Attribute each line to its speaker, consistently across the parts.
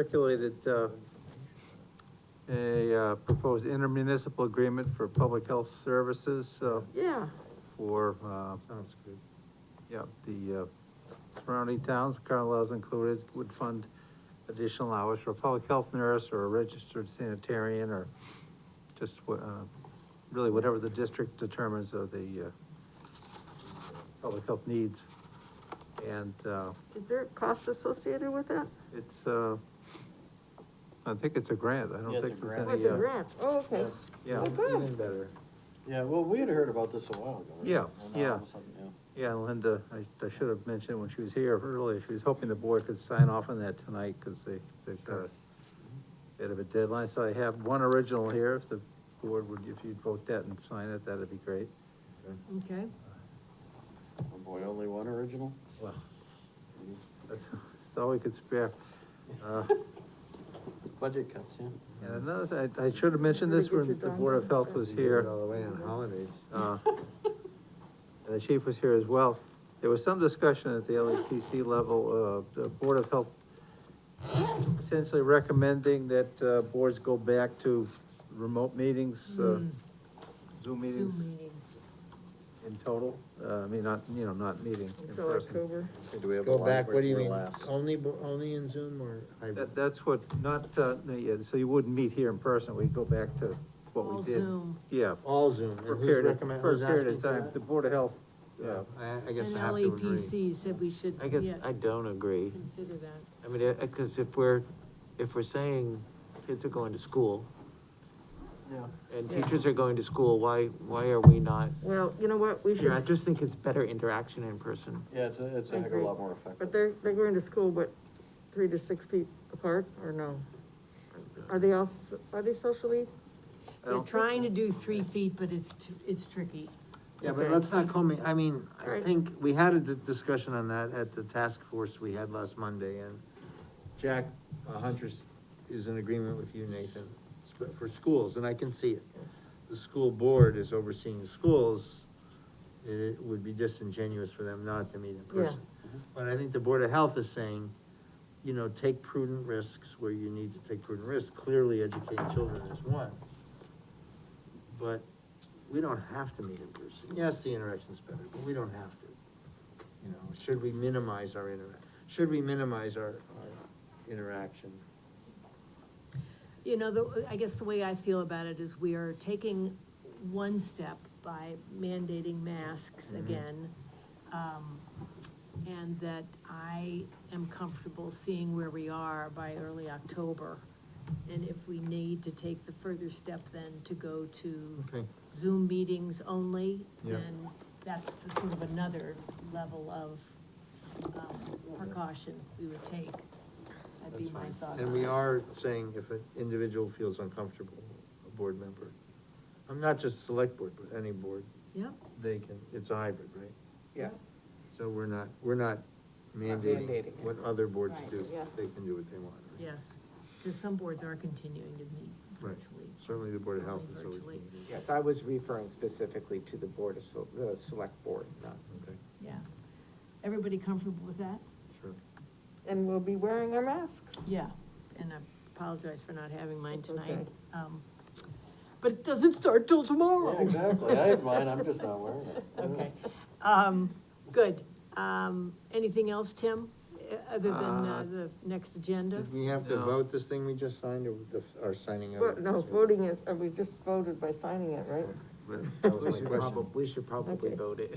Speaker 1: circulated, uh, a, uh, proposed intermunicipal agreement for public health services, uh,
Speaker 2: Yeah,
Speaker 1: for, uh,
Speaker 3: Sounds good.
Speaker 1: yeah, the, uh, surrounding towns, Carlisle's included, would fund additional hours for a public health nurse or a registered sanitarian or just, wha- uh, really whatever the district determines of the, uh, public health needs. And, uh,
Speaker 2: is there a cost associated with that?
Speaker 1: it's, uh, I think it's a grant, I
Speaker 4: Yeah,
Speaker 1: don't
Speaker 4: it's
Speaker 1: think there's
Speaker 4: a
Speaker 2: Oh,
Speaker 4: grant.
Speaker 1: any.
Speaker 2: it's a
Speaker 1: uh,
Speaker 2: grant, oh, okay.
Speaker 1: Yeah,
Speaker 2: Oh, good.
Speaker 3: Even better.
Speaker 4: Yeah, well, we had heard about this a while ago. right?
Speaker 1: Yeah,
Speaker 4: And now
Speaker 1: yeah.
Speaker 4: all of a sudden, yeah.
Speaker 1: yeah, Linda, I, I should have mentioned it when she was here earlier, she was hoping the board could sign off on that tonight, because they, they've got a bit of a deadline, so I have one original here, if the board would, if you'd vote that and sign it, that'd be great.
Speaker 2: Okay.
Speaker 4: Oh, boy, only one original?
Speaker 1: Well, that's, that's all we could spare. Uh,
Speaker 4: Budget cuts, yeah.
Speaker 1: And another, thing, I, I should have mentioned this when the Board of Health was
Speaker 3: You give
Speaker 1: here.
Speaker 3: it All the way on holidays.
Speaker 1: Uh, And the chief was here as well. There was some discussion at the LHTC level, uh, the Board of Health essentially recommending that, uh, boards go back to remote meetings, uh, Zoom meetings in total. Uh, I mean, not, you know, not meeting in
Speaker 2: Until
Speaker 1: person.
Speaker 2: October.
Speaker 4: Okay, Do we have a
Speaker 3: Go
Speaker 4: line
Speaker 3: back,
Speaker 4: for
Speaker 3: what do you
Speaker 4: for
Speaker 3: mean,
Speaker 4: last?
Speaker 3: only, bo- only in Zoom or hybrid?
Speaker 1: That, that's what, not, uh, no, yeah, so you wouldn't meet here in person, we'd go back to what
Speaker 5: All
Speaker 1: we did.
Speaker 5: Zoom.
Speaker 1: Yeah.
Speaker 3: All Zoom,
Speaker 1: For a
Speaker 3: and who's
Speaker 1: period, of-
Speaker 3: recommend,
Speaker 1: for a
Speaker 3: who's
Speaker 1: period
Speaker 3: asking
Speaker 1: of time,
Speaker 3: for
Speaker 1: the Board of Health, uh,
Speaker 3: that? Yeah, I, I guess
Speaker 5: And
Speaker 3: I have to
Speaker 2: E
Speaker 3: agree.
Speaker 5: LAPC said we should,
Speaker 6: I guess
Speaker 5: yeah,
Speaker 6: I don't agree.
Speaker 5: consider that.
Speaker 6: I mean, uh, uh, cause if we're, if we're saying kids are going to school
Speaker 4: Yeah.
Speaker 6: and
Speaker 2: Yeah.
Speaker 6: teachers are going to school, why, why are we not?
Speaker 2: Well, you know what, we
Speaker 6: Yeah, I
Speaker 2: should,
Speaker 6: just think it's better interaction in person.
Speaker 4: Yeah, it's, a- it's
Speaker 2: I
Speaker 4: a heck of a
Speaker 2: agree.
Speaker 4: lot more
Speaker 2: but
Speaker 4: effective.
Speaker 2: they're, they're going to school, but three to six feet apart, or no? Are they all, s- are they socially?
Speaker 1: I
Speaker 5: They're
Speaker 1: don't-
Speaker 5: trying to do three feet, but it's, too- it's tricky.
Speaker 3: Yeah, but
Speaker 2: Okay.
Speaker 3: let's not call me, I mean, I
Speaker 2: Right.
Speaker 3: think, we had a di- discussion on that at the task force we had last Monday, and Jack uh, Huntress is in agreement with you, Nathan, sp- for schools, and I can see it. The school board is overseeing the schools, it would be disingenuous for them not to meet in
Speaker 2: Yeah.
Speaker 3: person. Uh-huh. But I think the Board of Health is saying, you know, take prudent risks where you need to take prudent risks, clearly educating children is one. But we don't have to meet in person. Yes, the interaction's better, but we don't have to. You know, should we minimize our interac, should we minimize our, our interaction?
Speaker 5: You know, the, I guess the way I feel about it is we are taking one step by mandating masks
Speaker 3: Mm-hmm.
Speaker 5: again. Um, and that I am comfortable seeing where we are by early October. And if we need to take the further step then to go to
Speaker 3: Okay.
Speaker 5: Zoom meetings only,
Speaker 3: Yeah.
Speaker 5: then that's the sort of another level of um, precaution we would take. That'd be
Speaker 3: That's
Speaker 5: my
Speaker 3: fine.
Speaker 5: thought.
Speaker 3: And we are saying if an individual feels uncomfortable, a board member, I'm not just select board, but any board,
Speaker 5: Yep,
Speaker 3: they can, it's a hybrid, right?
Speaker 4: Yeah.
Speaker 3: So we're not, we're not mandating
Speaker 4: mandating it.
Speaker 3: what other boards
Speaker 5: Right,
Speaker 3: do,
Speaker 2: yeah.
Speaker 3: they can do what they want. right?
Speaker 5: yes, because some boards are continuing to meet
Speaker 3: Right.
Speaker 5: virtually.
Speaker 3: Certainly the Board of Health is always.
Speaker 5: Virtually.
Speaker 7: Yes, I was referring specifically to the board of, Sel- the select board, not
Speaker 3: Okay,
Speaker 5: Yeah. Everybody comfortable with that?
Speaker 3: sure.
Speaker 2: And we'll be wearing our masks.
Speaker 5: Yeah, and I apologize for not having mine
Speaker 2: That's okay.
Speaker 5: tonight. Um, But it doesn't start till tomorrow.
Speaker 4: Yeah, exactly, I had mine, I'm just not wearing it.
Speaker 5: Okay, um, good. Um, anything else, Tim, eh, other than, uh,
Speaker 1: Uh,
Speaker 5: the next agenda?
Speaker 3: Did we have to
Speaker 1: No.
Speaker 3: vote this thing we just signed, or the, our signing of
Speaker 2: But,
Speaker 3: it?
Speaker 2: no, voting is, uh, we just voted by signing it, right?
Speaker 3: That was
Speaker 6: We
Speaker 3: my
Speaker 6: should
Speaker 3: question.
Speaker 6: probab- We should probably
Speaker 2: Okay.
Speaker 6: vote it.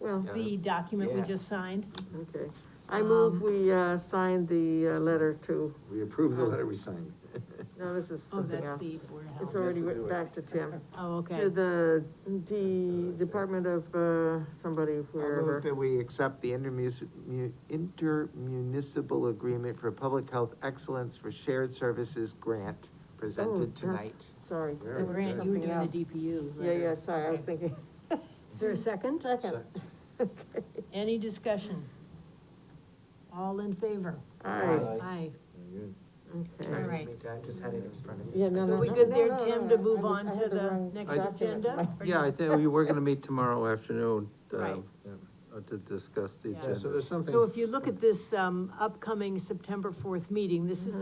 Speaker 2: Well,
Speaker 5: The document we
Speaker 6: Yeah.
Speaker 5: just signed?
Speaker 2: okay. I move
Speaker 5: Um,
Speaker 2: we, uh, sign the, uh, letter to,
Speaker 3: We approved the letter we signed.
Speaker 2: no, this is
Speaker 5: Oh,
Speaker 2: something
Speaker 5: that's
Speaker 2: else.
Speaker 5: the Board of
Speaker 2: It's
Speaker 5: Health.
Speaker 2: already
Speaker 4: to
Speaker 2: written
Speaker 4: do it.
Speaker 2: back to Tim.
Speaker 5: Oh, okay.
Speaker 2: To the, the Department of, uh, somebody,
Speaker 7: I move
Speaker 2: wherever.
Speaker 7: that we accept the intermus- mu- intermunicipal agreement for public health excellence for shared services grant
Speaker 2: Oh,
Speaker 7: presented
Speaker 2: that's-
Speaker 7: tonight.
Speaker 2: Sorry.
Speaker 3: Where
Speaker 2: that
Speaker 3: is
Speaker 2: was
Speaker 5: Grant, you were
Speaker 2: something
Speaker 5: doing
Speaker 2: else.
Speaker 5: the DPU.
Speaker 2: Yeah,
Speaker 5: letter.
Speaker 2: yeah, sorry, I was thinking.
Speaker 5: Is there a second?
Speaker 2: Second.
Speaker 5: Any discussion? All in favor?
Speaker 2: All right,
Speaker 4: Aye.
Speaker 5: Aye.
Speaker 2: okay.
Speaker 5: All right.
Speaker 7: I just had it in front of me.
Speaker 2: Yeah, no,
Speaker 5: Are
Speaker 2: no,
Speaker 5: we
Speaker 2: no,
Speaker 5: good
Speaker 2: no,
Speaker 5: there,
Speaker 2: no, no, no, I
Speaker 5: Tim, to move
Speaker 2: did-
Speaker 5: on
Speaker 2: I
Speaker 5: to
Speaker 2: had the
Speaker 5: the
Speaker 2: wrong
Speaker 5: next
Speaker 2: document.
Speaker 5: agenda? or
Speaker 1: Yeah, I
Speaker 5: not?
Speaker 1: think, we were gonna meet tomorrow afternoon, uh,
Speaker 5: Right.
Speaker 1: uh, to discuss the
Speaker 5: Yeah.
Speaker 1: agenda.
Speaker 3: Yeah, so there's something.
Speaker 5: So if you look at this, um, upcoming September fourth meeting, this is